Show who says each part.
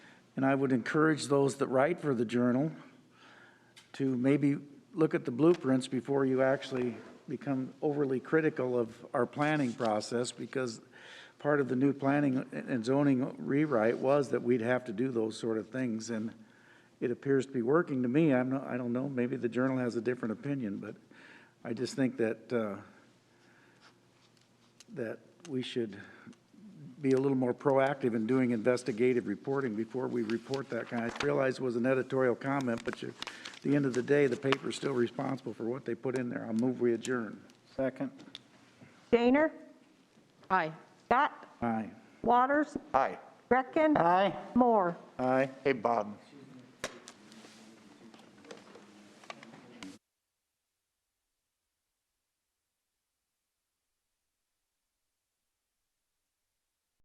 Speaker 1: And I would encourage those that write for the journal to maybe look at the blueprints before you actually become overly critical of our planning process, because part of the new planning and zoning rewrite was that we'd have to do those sort of things, and it appears to be working to me. I'm not, I don't know, maybe the journal has a different opinion, but I just think that, uh, that we should be a little more proactive in doing investigative reporting before we report that kind. I realize it was an editorial comment, but you, at the end of the day, the paper's still responsible for what they put in there. I'll move we adjourn.
Speaker 2: Second.
Speaker 3: Shaner?
Speaker 4: Aye.
Speaker 3: Scott?
Speaker 1: Aye.
Speaker 3: Waters?
Speaker 5: Aye.
Speaker 3: Gretkin?
Speaker 2: Aye.
Speaker 3: Moore?
Speaker 2: Aye.
Speaker 5: Hey, Bob,